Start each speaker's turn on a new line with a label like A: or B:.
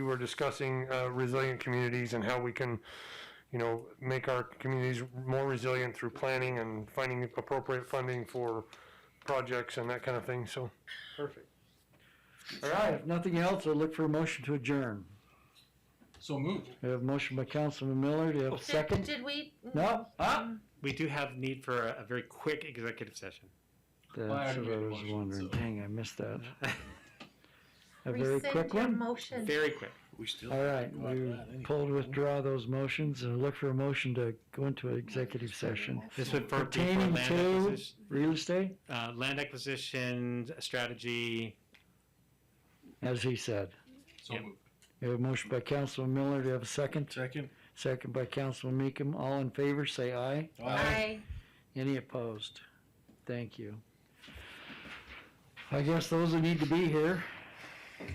A: we were discussing uh, resilient communities and how we can, you know, make our communities more resilient through planning and finding appropriate funding for projects and that kind of thing. So,
B: Perfect. All right, if nothing else, I'll look for a motion to adjourn.
C: So moved.
B: We have a motion by Councilman Miller, do you have a
D: Did,
B: second?
D: did we?
B: No? Ah?
E: We do have need for a, a very quick executive session.
B: That's what I
C: already made a
B: was
C: motion,
B: wondering,
C: so-
B: dang, I missed that. A very
D: Rescind
B: quick
D: your
B: one?
D: motion.
E: Very quick.
C: We still.
B: All right, we pulled, withdraw those motions, and look for a motion to go into an executive session.
E: This would for, be for
B: Pertaining
E: land
B: to
E: acquisition,
B: real estate,
E: uh, land acquisition strategy.
B: as he said.
C: So
E: Yep.
C: moved.
B: We have a motion by Councilman Miller, do you have a second?
C: Second.
B: Second by Councilman Meekum, all in favor, say aye.
D: Aye.
B: Any opposed? Thank you. I guess those that need to be here.